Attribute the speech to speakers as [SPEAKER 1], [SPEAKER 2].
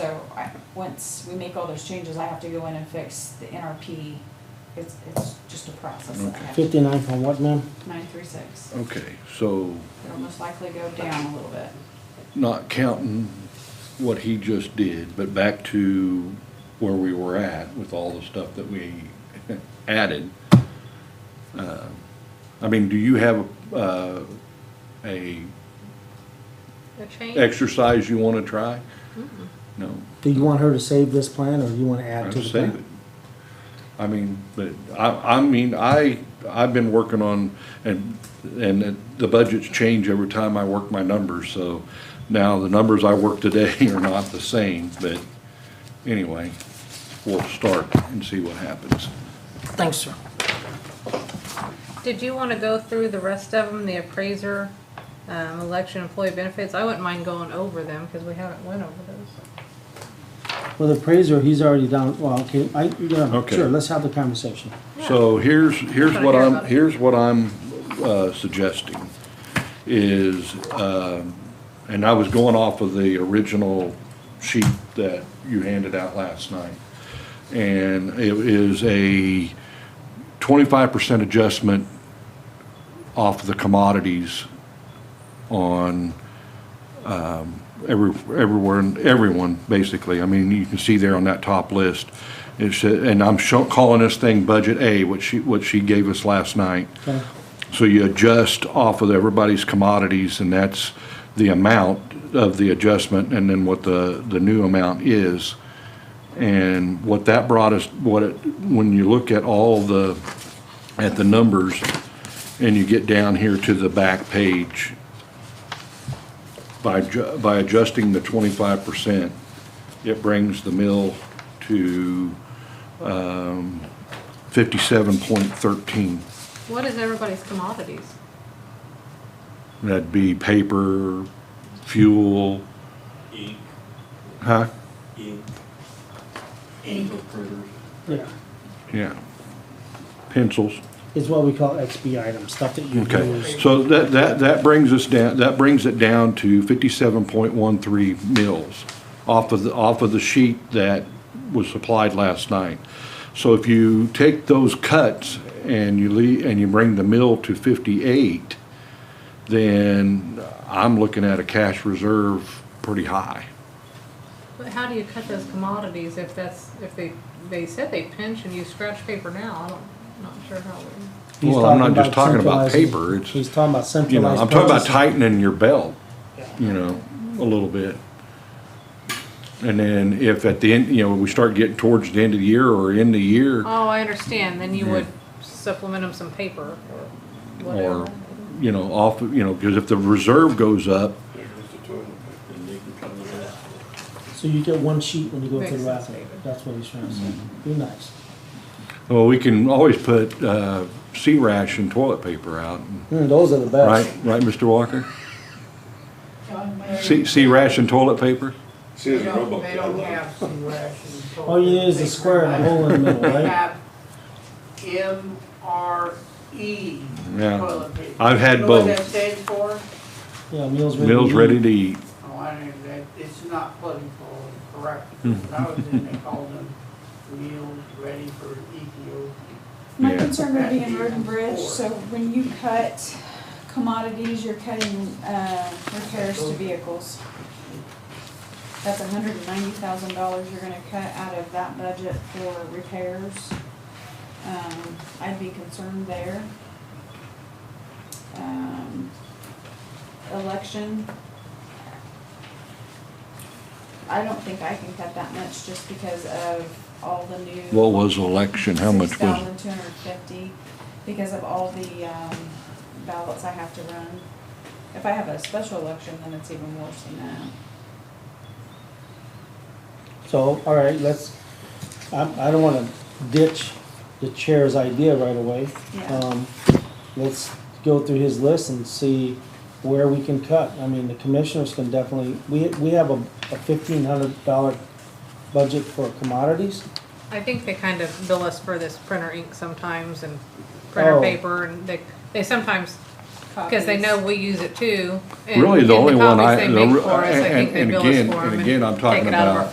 [SPEAKER 1] So I, once we make all those changes, I have to go in and fix the NRP. It's, it's just a process that I have to,
[SPEAKER 2] Fifty-nine from what, ma'am?
[SPEAKER 1] nine three six.
[SPEAKER 3] Okay, so
[SPEAKER 1] It'll most likely go down a little bit.
[SPEAKER 3] not counting what he just did, but back to where we were at with all the stuff that we added. uh, I mean, do you have uh, a
[SPEAKER 4] The change,
[SPEAKER 3] exercise you want to try? No,
[SPEAKER 2] Do you want her to save this plan, or do you wanna add
[SPEAKER 3] I'd
[SPEAKER 2] to the
[SPEAKER 3] save it.
[SPEAKER 2] plan?
[SPEAKER 3] I mean, but I, I mean, I, I've been working on, and, and the budgets change every time I work my numbers, so now the numbers I work today are not the same, but anyway, we'll start and see what happens.
[SPEAKER 2] Thanks, sir.
[SPEAKER 4] did you want to go through the rest of them, the appraiser, um, election employee benefits? I wouldn't mind going over them because we haven't went over those.
[SPEAKER 2] Well, the appraiser, he's already down, well, okay, I, yeah,
[SPEAKER 3] Okay.
[SPEAKER 2] sure, let's have the conversation.
[SPEAKER 3] So here's, here's
[SPEAKER 4] That's what
[SPEAKER 3] what
[SPEAKER 4] I hear
[SPEAKER 3] I'm,
[SPEAKER 4] about it.
[SPEAKER 3] here's what I'm uh, suggesting is, um, and I was going off of the original sheet that you handed out last night. And it is a twenty-five percent adjustment off the commodities on every, everywhere, and everyone, basically. I mean, you can see there on that top list. It's, and I'm show- calling this thing Budget A, what she, what she gave us last night.
[SPEAKER 2] Okay.
[SPEAKER 3] So you adjust off of everybody's commodities, and that's the amount of the adjustment, and then what the, the new amount is. And what that brought us, what it, when you look at all the, at the numbers, and you get down here to the back page, by, ju- by adjusting the twenty-five percent, it brings the mill to, um, fifty-seven point thirteen.
[SPEAKER 4] What is everybody's commodities?
[SPEAKER 3] That'd be paper, fuel,
[SPEAKER 5] Ink,
[SPEAKER 3] huh?
[SPEAKER 5] ink. Ink. Printers.
[SPEAKER 2] Yeah,
[SPEAKER 3] Yeah. Pencils.
[SPEAKER 2] it's what we call XB items, stuff that you
[SPEAKER 3] Okay,
[SPEAKER 2] use.
[SPEAKER 3] so that, that, that brings us down, that brings it down to fifty-seven point one three mils off of the, off of the sheet that was supplied last night. So if you take those cuts and you lea- and you bring the mill to fifty-eight, then I'm looking at a cash reserve pretty high.
[SPEAKER 4] But how do you cut those commodities if that's, if they, they said they pinch and you scratch paper now? I don't, not sure how we.
[SPEAKER 2] He's
[SPEAKER 3] Well, I'm not just
[SPEAKER 2] about
[SPEAKER 3] talking about
[SPEAKER 2] centralizing-
[SPEAKER 3] paper, it's-
[SPEAKER 2] He's talking about
[SPEAKER 3] You know,
[SPEAKER 2] centralized.
[SPEAKER 3] I'm talking about
[SPEAKER 2] purchasing.
[SPEAKER 3] tightening your belt, you know, a little bit. And then if at the end, you know, we start getting towards the end of the year or in the year,
[SPEAKER 4] Oh, I understand, then you would supplement them some paper or
[SPEAKER 3] or,
[SPEAKER 4] whatever.
[SPEAKER 3] you know, off, you know, because if the reserve goes up,
[SPEAKER 5] And they can come to that.
[SPEAKER 2] So you get one sheet when you go to
[SPEAKER 4] Makes
[SPEAKER 2] the
[SPEAKER 4] sense,
[SPEAKER 2] bathroom,
[SPEAKER 4] David.
[SPEAKER 2] that's what he's trying to say, be nice.
[SPEAKER 3] well, we can always put, uh, sea ration toilet paper out,
[SPEAKER 2] Mm, those are the
[SPEAKER 3] right,
[SPEAKER 2] best.
[SPEAKER 3] right, Mr. Walker? Sea, sea ration toilet paper?
[SPEAKER 6] She is a robot.
[SPEAKER 7] They don't have some rations.
[SPEAKER 2] All you need is a square and a hole in the middle,
[SPEAKER 7] They
[SPEAKER 2] right?
[SPEAKER 7] have MRE
[SPEAKER 3] Yeah.
[SPEAKER 7] toilet paper.
[SPEAKER 3] I've had
[SPEAKER 7] E You know what that
[SPEAKER 3] both.
[SPEAKER 7] stands for?
[SPEAKER 2] Yeah, meals ready.
[SPEAKER 3] Meals
[SPEAKER 2] to eat.
[SPEAKER 3] ready to eat.
[SPEAKER 7] Oh, I didn't, that, it's not political and correct.
[SPEAKER 3] Hmm.
[SPEAKER 7] When I was in, they called them meals ready for Ethiopia.
[SPEAKER 1] My
[SPEAKER 3] Yeah.
[SPEAKER 1] concern would be in road and bridge, so when you cut commodities, you're cutting, uh, repairs to vehicles. That's hundred and ninety thousand dollars you're gonna cut out of that budget for repairs. Um, I'd be concerned there. Um, election. I don't think I can cut that much just because of all the new.
[SPEAKER 3] What was election, how much
[SPEAKER 1] Six
[SPEAKER 3] was?
[SPEAKER 1] thousand two hundred fifty, because of all the, um, ballots I have to run. If I have a special election, then it's even worse than that.
[SPEAKER 2] So, all right, let's, I, I don't wanna ditch the chair's idea right away.
[SPEAKER 1] Yeah.
[SPEAKER 2] Um, Let's go through his list and see where we can cut. I mean, the commissioners can definitely, we, we have a a fifteen hundred dollar budget for commodities.
[SPEAKER 4] I think they kind of bill us for this printer ink sometimes and printer
[SPEAKER 2] Oh.
[SPEAKER 4] paper and they, they sometimes, because they know we use it too. and-
[SPEAKER 3] Really, the
[SPEAKER 4] and
[SPEAKER 3] only one
[SPEAKER 4] copies
[SPEAKER 3] I,
[SPEAKER 4] they
[SPEAKER 3] the
[SPEAKER 4] make
[SPEAKER 3] re-
[SPEAKER 4] for us, I think
[SPEAKER 3] and,
[SPEAKER 4] they
[SPEAKER 3] and
[SPEAKER 4] bill us
[SPEAKER 3] again,
[SPEAKER 4] for 'em
[SPEAKER 3] and again, I'm
[SPEAKER 4] take
[SPEAKER 3] talking
[SPEAKER 4] it out of our
[SPEAKER 3] about